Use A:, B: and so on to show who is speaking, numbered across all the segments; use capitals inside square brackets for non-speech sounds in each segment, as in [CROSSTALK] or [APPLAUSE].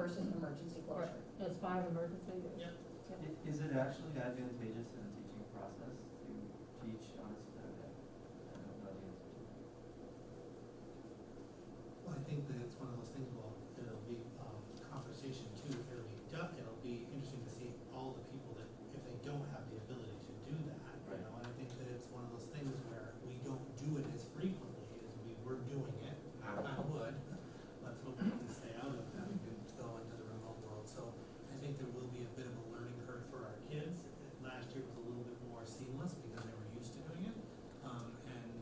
A: emergency closure.
B: It's five emergency?
C: Yep.
D: I- Is it actually advantageous in the teaching process to teach on a Saturday? I don't know the answer to that.
C: Well, I think that it's one of those things, well, it'll be, um, conversation too, it'll be, du- it'll be interesting to see all the people that, if they don't have the ability to do that, you
D: Right.
C: know, and I think that it's one of those things where we don't do it as frequently as we were doing it, knock on wood, let's hope we can stay out of having to go into the remote world, so I think there will be a bit of a learning curve for our kids, last year was a little bit more seamless because they were used to doing it, um, and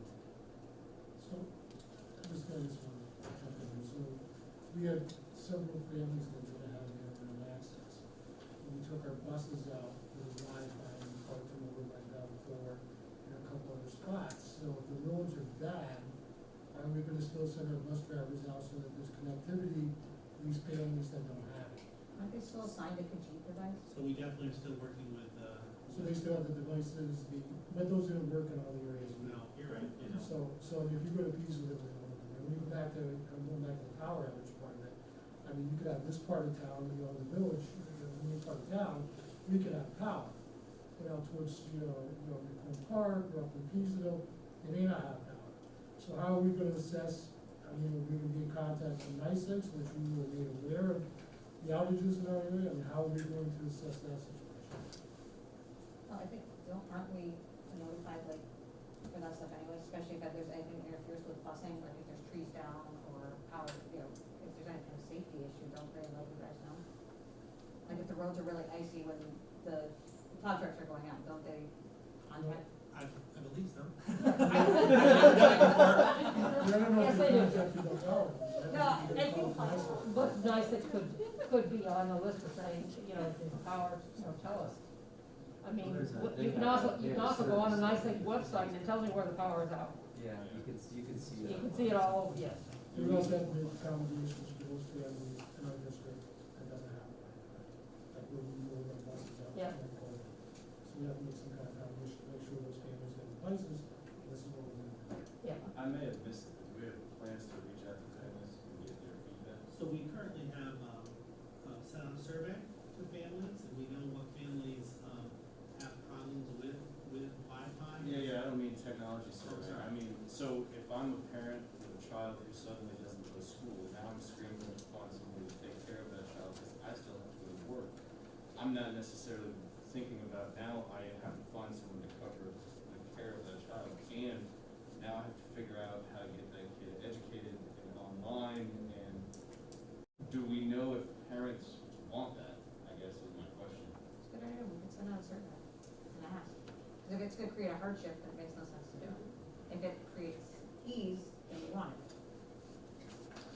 E: So, I just got this one, something, so, we had several families that didn't have internet access. And We took our buses out with Wi-Fi and parked them over by Belfour and a couple other spots, so if the roads are bad, are we gonna still send our bus drivers out so that there's connectivity for these families that don't have it?
A: Aren't they still assigned a Kajit device?
C: So we definitely are still working with, uh,
E: So they still have the devices, the, but those didn't work in all the areas we
C: no, you're right, you know.
E: So, so if you go to Pisa, they would, and we go back to, I'm going back to the power outage part of it, I mean, you could have this part of town, you know, the village, the main part of town, we could have power. You know, towards, you know, you know, Macomb Park, or up in Pisa, they may not have power. So how are we gonna assess, I mean, are we gonna be in contact with NICEX, which we were made aware of the outages in our area, and how are we going to assess that situation?
A: Well, Uh, I think, don't, aren't we notified, like, for that stuff anyway, especially if there's anything interferes with busing, like if there's trees down or power, you know, if there's any kind of safety issue, don't they let you guys know? Like if the roads are really icy when the plow trucks are going out, don't they contact?
C: I, I believe so.
A: [LAUGHS]
E: I don't know if
B: Yes, I do.
E: you contact the power.
A: No, I think,
B: But nice that could, could be on the list of saying, you know, the power, you know, tell us. I mean,
D: Well, there's a-
B: what-
D: they
B: you can
D: have
B: also,
D: a- they
B: you can
D: have a
B: also go on a nice
D: service.
B: website and it tells you where the power is out.
D: Yeah, you can, s- you can see
B: You
D: that.
B: can see it all, yes.
E: There was that big combination of schools, families, in our district, that doesn't happen. Like, we're, we're on buses out.
B: Yeah.
E: So we have to make some kind of combination, to make sure those families get devices, and this is what we're doing.
B: Yeah.
F: I may have missed it, do we have plans to reach out to families and get their feedback?
C: So we currently have, um, uh, set out a survey to families, and we know what families, um, have problems with, with Wi-Fi.
F: Yeah, yeah, I don't mean technology survey,
C: sorry.
F: I mean, so if I'm a parent with a child who suddenly doesn't go to school, now I'm screaming upon someone to take care of that child, because I still have to go to work. I'm not necessarily thinking about now I have to find someone to cover the care of that child, and now I have to figure out how to get that kid educated and online, and do we know if parents want that, I guess is my question.
A: It's a good idea, we could send out a survey and ask. Because if it's gonna create a hardship, then it makes no sense to do it. If it creates ease, then we want it.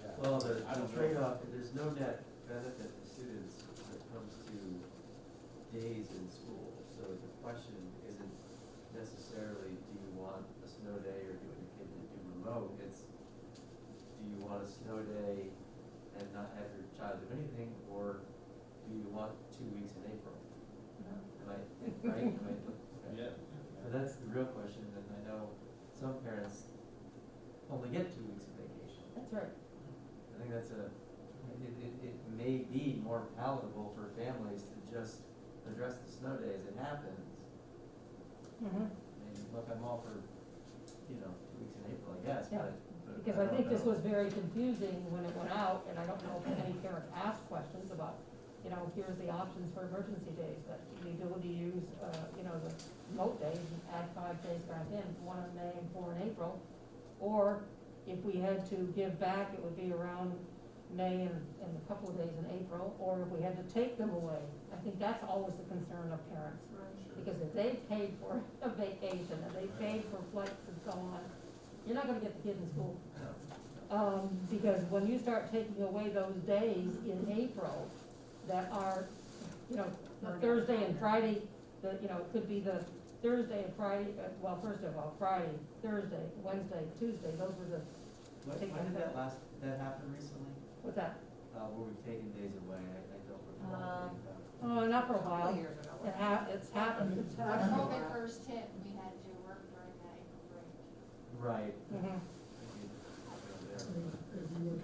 F: Yeah.
D: Well, the
F: I don't
D: the
F: know.
D: trade-off, there's no net benefit to students when it comes to days in school. So the question isn't necessarily, do you want a snow day or do you want your kid to do remote? It's, do you want a snow day and not have your child do anything, or do you want two weeks in April? Am I, right, am I, okay.
F: Yeah.
D: So that's the real question, and I know some parents only get two weeks of vacation.
B: That's right.
D: I think that's a, it, it, it may be more palatable for families to just address the snow days, it happens.
B: Mhm.
D: I mean, look, I'm all for, you know, two weeks in April, I guess,
B: Yeah,
D: but, but
B: Because I
D: don't
B: think this
D: know.
B: was very confusing when it went out, and I don't know if any parent asked questions about, you know, here's the options for emergency days, but the ability to use, uh, you know, the remote days and add five days back in, one in May and four in April. Or if we had to give back, it would be around May and, and a couple of days in April, or if we had to take them away. I think that's always the concern of parents. Because if they paid for [LAUGHS] a vacation, and they paid for flights and so on, you're not gonna get the kid in school. Um, because when you start taking away those days in April that are, you know, the Thursday and Friday, the, you know, it could be the Thursday and Friday, uh, well, first of all, Friday, Thursday, Wednesday, Tuesday, those were the,
D: When, when did that last, that happen recently?
B: what's that?
D: Uh, where we've taken days away, I, I don't recall.
A: Um,
B: Oh, not for a
A: A couple
B: while.
A: years ago.
B: It ha, it's happened. It's
G: Our
B: happened.
G: COVID first hit, we had to work during that April break.
D: Right.
A: Mm-hmm.
B: Mhm.
D: I think it- I don't know.
E: If you were